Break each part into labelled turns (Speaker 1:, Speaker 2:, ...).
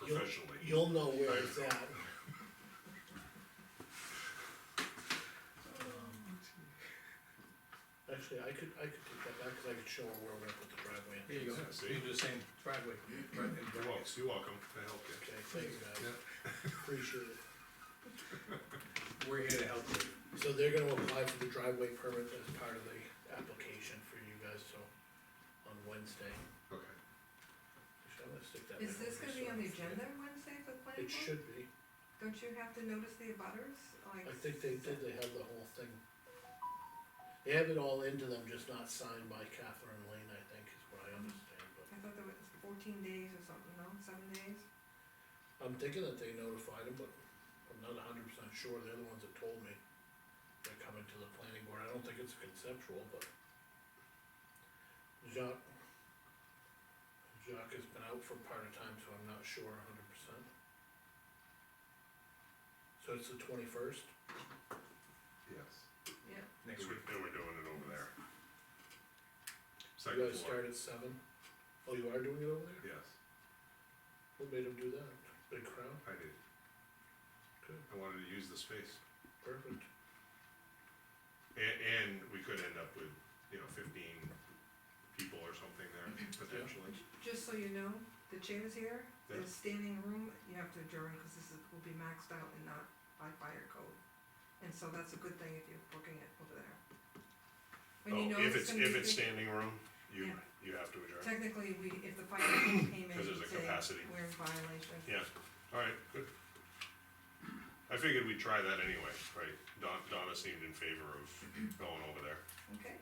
Speaker 1: officially.
Speaker 2: You'll know where it's at. Um, Actually, I could, I could take that back, cause I could show her where we're gonna put the driveway in.
Speaker 3: Here you go,
Speaker 1: Yeah, see?
Speaker 3: you do the same driveway.
Speaker 1: You're welcome, you're welcome, I help you.
Speaker 2: Okay, thank you guys, appreciate it.
Speaker 3: We're here to help you.
Speaker 2: So they're gonna apply for the driveway permit as part of the application for you guys, so on Wednesday.
Speaker 1: Okay,
Speaker 2: Actually, I'm gonna stick that
Speaker 4: Is
Speaker 2: in
Speaker 4: this
Speaker 2: there,
Speaker 4: gonna be
Speaker 2: so-
Speaker 4: on the agenda Wednesday for planning
Speaker 2: It
Speaker 4: board?
Speaker 2: should be.
Speaker 4: Don't you have to notice the abutters, like?
Speaker 2: I think they did, they have the whole thing. They have it all into them, just not signed by Catherine Lane, I think, is what I understand, but
Speaker 4: I thought there was fourteen days or something, no, seven days?
Speaker 2: I'm thinking that they notified them, but I'm not hundred percent sure, they're the ones that told me. They're coming to the planning board, I don't think it's conceptual, but. Jacques. Jacques has been out for part of time, so I'm not sure hundred percent. So it's the twenty-first?
Speaker 1: yes.
Speaker 4: Yeah.
Speaker 1: Then we- then we're doing it over there.
Speaker 2: You
Speaker 1: Second
Speaker 2: guys
Speaker 1: floor,
Speaker 2: start at seven? Oh, you are doing it over there?
Speaker 1: yes,
Speaker 2: Who made him do that? Big crowd?
Speaker 1: I did.
Speaker 2: Good.
Speaker 1: I wanted to use the space.
Speaker 2: Perfect.
Speaker 1: And, and we could end up with, you know, fifteen people or something there
Speaker 4: Mm-hmm.
Speaker 1: potentially.
Speaker 4: Just so you know, the chairs here, the
Speaker 1: Yeah.
Speaker 4: standing room, you have to adjourn, cause this is, will be maxed out and not by fire code. And so that's a good thing if you're booking it over there. When you
Speaker 1: Oh,
Speaker 4: know
Speaker 1: if
Speaker 4: it's
Speaker 1: it's,
Speaker 4: gonna
Speaker 1: if
Speaker 4: be
Speaker 1: it's
Speaker 4: big-
Speaker 1: standing room, you,
Speaker 4: Yeah.
Speaker 1: you have to adjourn.
Speaker 4: Technically, we, if the fire code came in
Speaker 1: 'Cause there's
Speaker 4: and
Speaker 1: a
Speaker 4: said
Speaker 1: capacity.
Speaker 4: we're in violation,
Speaker 1: Yeah, alright, good. I figured we'd try that anyway, right? Don, Donna seemed in favor of going over there.
Speaker 4: okay?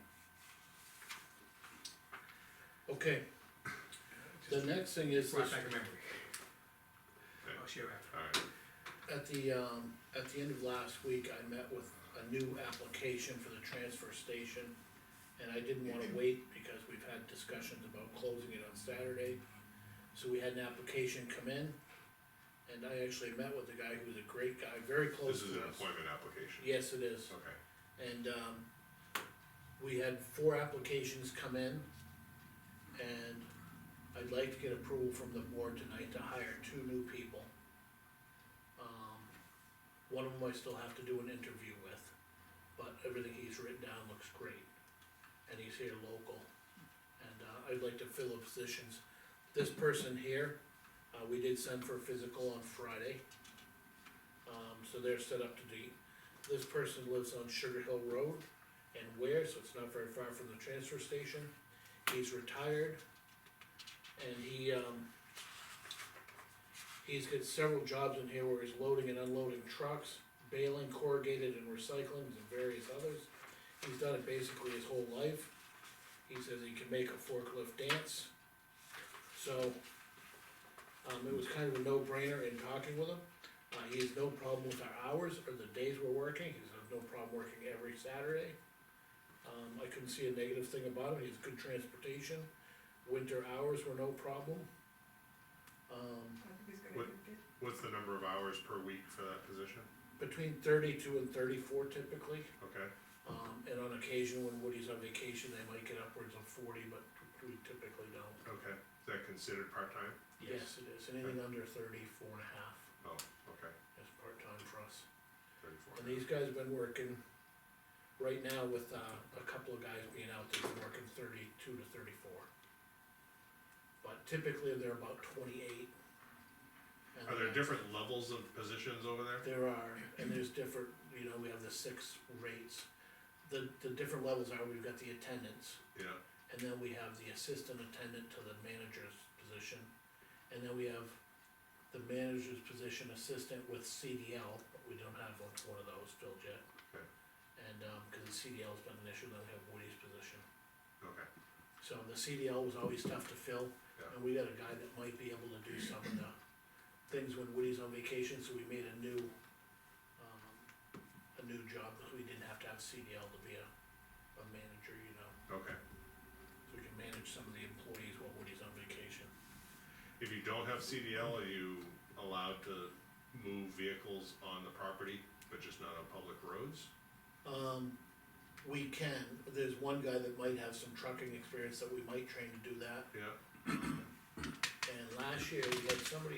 Speaker 2: Okay, the next thing is
Speaker 3: Brought
Speaker 2: this,
Speaker 3: back a memory.
Speaker 1: Okay.
Speaker 3: I'll share after.
Speaker 1: Alright,
Speaker 2: at the, um, at the end of last week, I met with a new application for the transfer station. And I didn't wanna wait because we've had discussions about closing it on Saturday. So we had an application come in. And I actually met with the guy who was a great guy, very close
Speaker 1: this
Speaker 2: to us.
Speaker 1: is an appointment application.
Speaker 2: Yes, it is.
Speaker 1: Okay,
Speaker 2: And, um, we had four applications come in. And I'd like to get approval from the board tonight to hire two new people. Um, One of them I still have to do an interview with, but everything he's written down looks great. And he's here local. And, uh, I'd like to fill the positions. This person here, uh, we did send for physical on Friday. Um, so they're set up to do, this person lives on Sugar Hill Road and Ware, so it's not very far from the transfer station. He's retired. And he, um, he's got several jobs in here where he's loading and unloading trucks, baling corrugated and recycling and various others. He's done it basically his whole life. He says he can make a forklift dance. So, um, it was kind of a no-brainer in talking with him. Uh, he has no problem with our hours or the days we're working, he has no problem working every Saturday. Um, I couldn't see a negative thing about him, he has good transportation, winter hours were no problem. Um,
Speaker 4: I think he's gonna
Speaker 1: What-
Speaker 4: do good.
Speaker 1: what's the number of hours per week for that position?
Speaker 2: between thirty-two and thirty-four typically,
Speaker 1: Okay,
Speaker 2: um, and on occasion when Woody's on vacation, they might get upwards of forty, but we typically don't.
Speaker 1: okay, is that considered part-time?
Speaker 2: Yes, it is, anything under thirty-four and a half
Speaker 1: Oh, okay,
Speaker 2: is part-time for us.
Speaker 1: thirty-four.
Speaker 2: And these guys have been working, right now with, uh, a couple of guys being out, they've been working thirty-two to thirty-four. But typically, they're about twenty-eight. And
Speaker 1: Are there
Speaker 2: that's-
Speaker 1: different levels of positions over there?
Speaker 2: There are, and there's different, you know, we have the six rates. The, the different levels are, we've got the attendants,
Speaker 1: Yeah,
Speaker 2: and then we have the assistant attendant to the manager's position. And then we have the manager's position assistant with CDL, but we don't have one one of those filled yet.
Speaker 1: Okay.
Speaker 2: And, um, cause the CDL's been an issue, then we have Woody's position.
Speaker 1: okay,
Speaker 2: So the CDL was always tough to fill,
Speaker 1: Yeah.
Speaker 2: and we got a guy that might be able to do some of the things when Woody's on vacation, so we made a new, um, a new job, because we didn't have to have CDL to be a, a manager, you know,
Speaker 1: okay.
Speaker 2: so we can manage some of the employees while Woody's on vacation.
Speaker 1: If you don't have CDL, are you allowed to move vehicles on the property, but just not on public roads?
Speaker 2: Um, we can, there's one guy that might have some trucking experience that we might train to do that,
Speaker 1: Yeah,
Speaker 2: and last year we had somebody